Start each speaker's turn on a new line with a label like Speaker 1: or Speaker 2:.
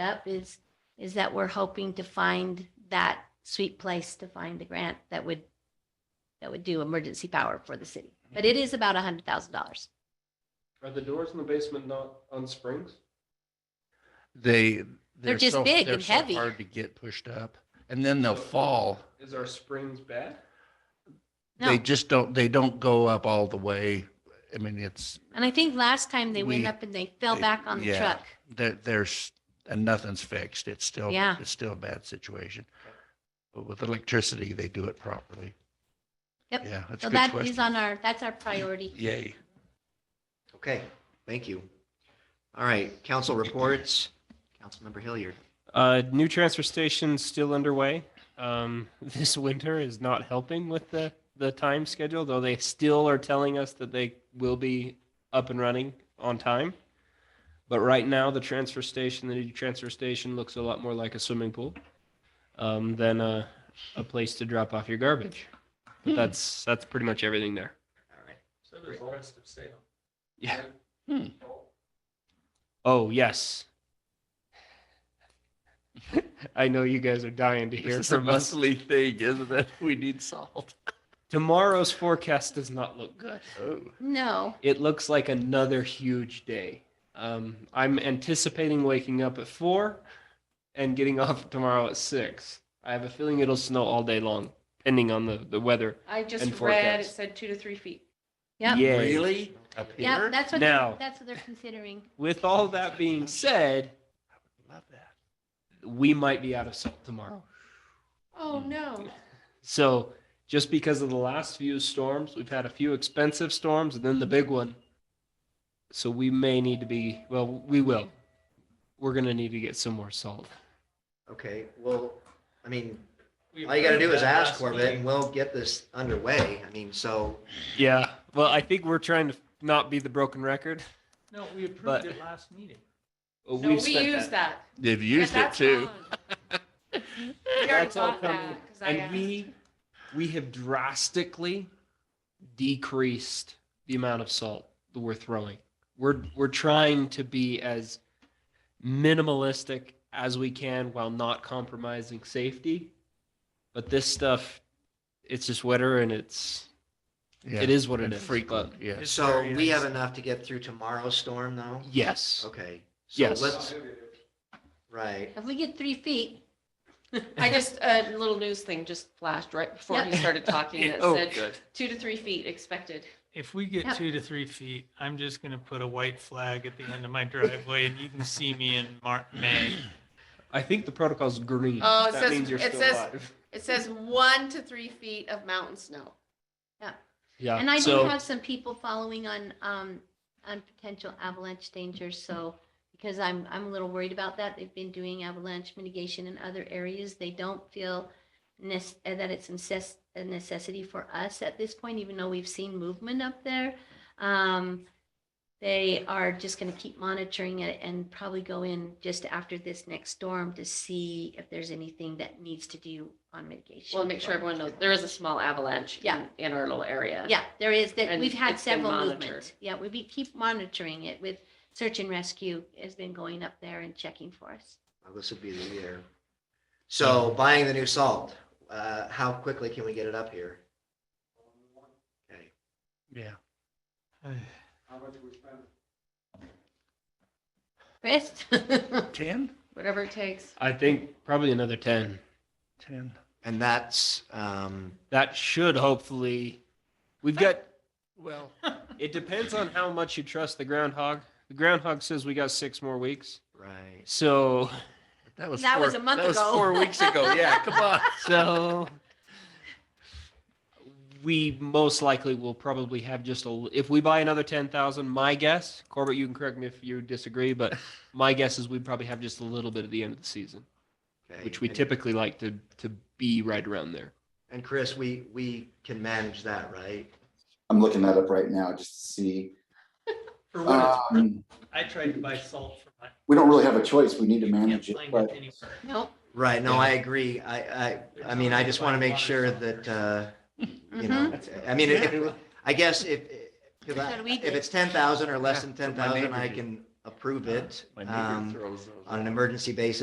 Speaker 1: up is, is that we're hoping to find that sweet place to find the grant that would, that would do emergency power for the city.
Speaker 2: Mm-hmm.
Speaker 1: But it is about a hundred thousand dollars.
Speaker 3: Are the doors in the basement not on springs?
Speaker 2: they they're,
Speaker 1: just
Speaker 2: so,
Speaker 1: big
Speaker 2: they're
Speaker 1: and
Speaker 2: so
Speaker 1: heavy.
Speaker 2: hard to get pushed up and then they'll fall
Speaker 3: Is our springs bad?
Speaker 1: No,
Speaker 2: they just don't they don't go up all the way i mean it's
Speaker 1: and I think last time they went
Speaker 2: we-
Speaker 1: up and they fell
Speaker 2: they-
Speaker 1: back on the
Speaker 2: yeah.
Speaker 1: truck.
Speaker 2: there there's and nothing's fixed it's still
Speaker 1: Yeah.
Speaker 2: it's still a bad situation but with electricity they do it properly
Speaker 1: Yep.
Speaker 2: yeah that's
Speaker 1: So
Speaker 2: a good
Speaker 1: that is
Speaker 2: question
Speaker 1: on our, that's our priority.
Speaker 2: yay
Speaker 4: Okay, thank you. All right, council reports. Councilmember Hilliard.
Speaker 5: Uh, new transfer station still underway. Um, this winter is not helping with the, the time schedule, though they still are telling us that they will be up and running on time. But right now, the transfer station, the new transfer station looks a lot more like a swimming pool um, than a, a place to drop off your garbage. But that's that's pretty much everything there.
Speaker 4: All right.
Speaker 3: So does all rest of Salem.
Speaker 5: Yeah.
Speaker 2: Hmm.
Speaker 5: Oh yes. I know you guys are dying to hear from us.
Speaker 2: thing isn't it we need salt
Speaker 5: Tomorrow's forecast does not look good.
Speaker 2: oh
Speaker 1: No,
Speaker 5: It looks like another huge day. Um, I'm anticipating waking up at four and getting off tomorrow at six. I have a feeling it'll snow all day long, depending on the, the weather.
Speaker 6: I
Speaker 5: and
Speaker 6: just read, it
Speaker 5: forecast.
Speaker 6: said two to three feet.
Speaker 1: Yep.
Speaker 5: Yay.
Speaker 2: really up
Speaker 1: yeah,
Speaker 2: here
Speaker 1: that's what,
Speaker 5: Now-
Speaker 1: that's what they're considering.
Speaker 5: With all that being said,
Speaker 2: love that
Speaker 5: we might be out of salt tomorrow. Mm.
Speaker 6: Oh, no.
Speaker 5: So just because of the last few storms, we've had a few expensive storms and then the big one. So we may need to be, well, we will. We're going to need to get some more salt.
Speaker 4: Okay, well, I mean, all you gotta do is ask Corbett and we'll get this underway. I mean, so,
Speaker 5: Yeah. Well, I think we're trying to not be the broken record.
Speaker 7: No, we approved
Speaker 5: But-
Speaker 7: it last meeting.
Speaker 5: but
Speaker 6: No,
Speaker 5: we've
Speaker 6: we
Speaker 5: spent
Speaker 6: use that.
Speaker 2: they've
Speaker 6: Yeah,
Speaker 2: used it
Speaker 6: that's
Speaker 2: too
Speaker 6: gone. We already
Speaker 5: That's all
Speaker 6: bought that.
Speaker 5: coming.
Speaker 6: 'cause I uh,
Speaker 5: And
Speaker 6: asked.
Speaker 5: we, we have drastically decreased the amount of salt that we're throwing. We're, we're trying to be as minimalistic as we can while not compromising safety. But this stuff, it's just wetter and it's,
Speaker 2: yeah.
Speaker 5: it is what it
Speaker 2: and
Speaker 5: is.
Speaker 2: frequent
Speaker 5: but
Speaker 2: yeah
Speaker 7: It's
Speaker 4: so
Speaker 7: very
Speaker 4: we have
Speaker 7: nice.
Speaker 4: enough to get through tomorrow's storm though?
Speaker 5: Yes.
Speaker 4: Okay. so
Speaker 5: Yes.
Speaker 4: Let's, right,
Speaker 1: If we get three feet,
Speaker 6: I just, a little news thing just flashed right before he
Speaker 1: Yep.
Speaker 6: started talking that
Speaker 5: Oh,
Speaker 6: said
Speaker 5: good.
Speaker 6: two to three feet expected.
Speaker 7: If we get
Speaker 1: Yep.
Speaker 7: two to three feet, I'm just gonna put a white flag at the end of my driveway and you can see me in Mar- May.
Speaker 5: I think the protocol's green.
Speaker 6: Oh, it
Speaker 5: That
Speaker 6: says-
Speaker 5: means you're
Speaker 6: it
Speaker 5: still
Speaker 6: says-
Speaker 5: alive.
Speaker 6: It says one to three feet of mountain snow.
Speaker 5: Yeah.
Speaker 1: And I do
Speaker 5: so-
Speaker 1: have some people following on, um, on potential avalanche dangers, so, because I'm, I'm a little worried about that. They've been doing avalanche mitigation in other areas. They don't feel nes- uh, that it's necess- a necessity for us at this point, even though we've seen movement up there. Um, they are just gonna keep monitoring it and probably go in just after this next storm to see if there's anything that needs to do on mitigation.
Speaker 6: Well, make sure everyone knows there is a small avalanche
Speaker 1: Yeah.
Speaker 6: in, in our little area.
Speaker 1: Yeah, there is, that,
Speaker 6: And
Speaker 1: we've had
Speaker 6: it's been
Speaker 1: several
Speaker 6: monitored.
Speaker 1: movements. Yeah, we be- keep monitoring it with search and rescue has been going up there and checking for us.
Speaker 4: Well, this would be the year. So buying the new salt, uh, how quickly can we get it up here? Okay.
Speaker 2: yeah
Speaker 3: How much we spend?
Speaker 1: Chris?
Speaker 2: 10
Speaker 6: Whatever it takes.
Speaker 5: I think probably another 10.
Speaker 2: 10
Speaker 4: And that's, um,
Speaker 5: That should hopefully. We've got.
Speaker 2: well
Speaker 5: It depends on how much you trust the groundhog. The groundhog says we got six more weeks.
Speaker 4: right.
Speaker 5: So,
Speaker 2: That was
Speaker 1: That
Speaker 2: four,
Speaker 1: was a month
Speaker 2: that was
Speaker 1: ago.
Speaker 2: four weeks ago. Oh, Yeah, come on.
Speaker 5: so we most likely will probably have just a. If we buy another ten thousand, my guess, Corbett, you can correct me if you disagree, but my guess is we probably have just a little bit at the end of the season,
Speaker 4: Okay.
Speaker 5: which we
Speaker 4: And-
Speaker 5: typically like to to be right around there.
Speaker 4: And Chris, we, we can manage that, right?
Speaker 8: I'm looking that up right now just to see.
Speaker 7: For what it's worth,
Speaker 8: Um,
Speaker 7: I tried to buy salt for my.
Speaker 8: we don't really have a choice. We need to
Speaker 7: You can't
Speaker 8: manage it,
Speaker 7: find
Speaker 8: but
Speaker 7: anywhere.
Speaker 1: Nope.
Speaker 4: Right, no, I agree. I, I, I mean, I just want to make sure that, uh, you
Speaker 2: Mm-hmm.
Speaker 4: know, I mean, if- I guess if, if
Speaker 1: That's what we
Speaker 4: if
Speaker 1: did.
Speaker 4: it's ten thousand or less
Speaker 2: Yeah,
Speaker 4: than
Speaker 2: that's
Speaker 4: ten
Speaker 2: what my
Speaker 4: thousand,
Speaker 2: neighbor
Speaker 4: I
Speaker 2: did.
Speaker 4: can approve it
Speaker 2: My neighbor
Speaker 4: um,
Speaker 2: throws those
Speaker 4: on an
Speaker 2: out.
Speaker 5: Um,
Speaker 4: emergency basis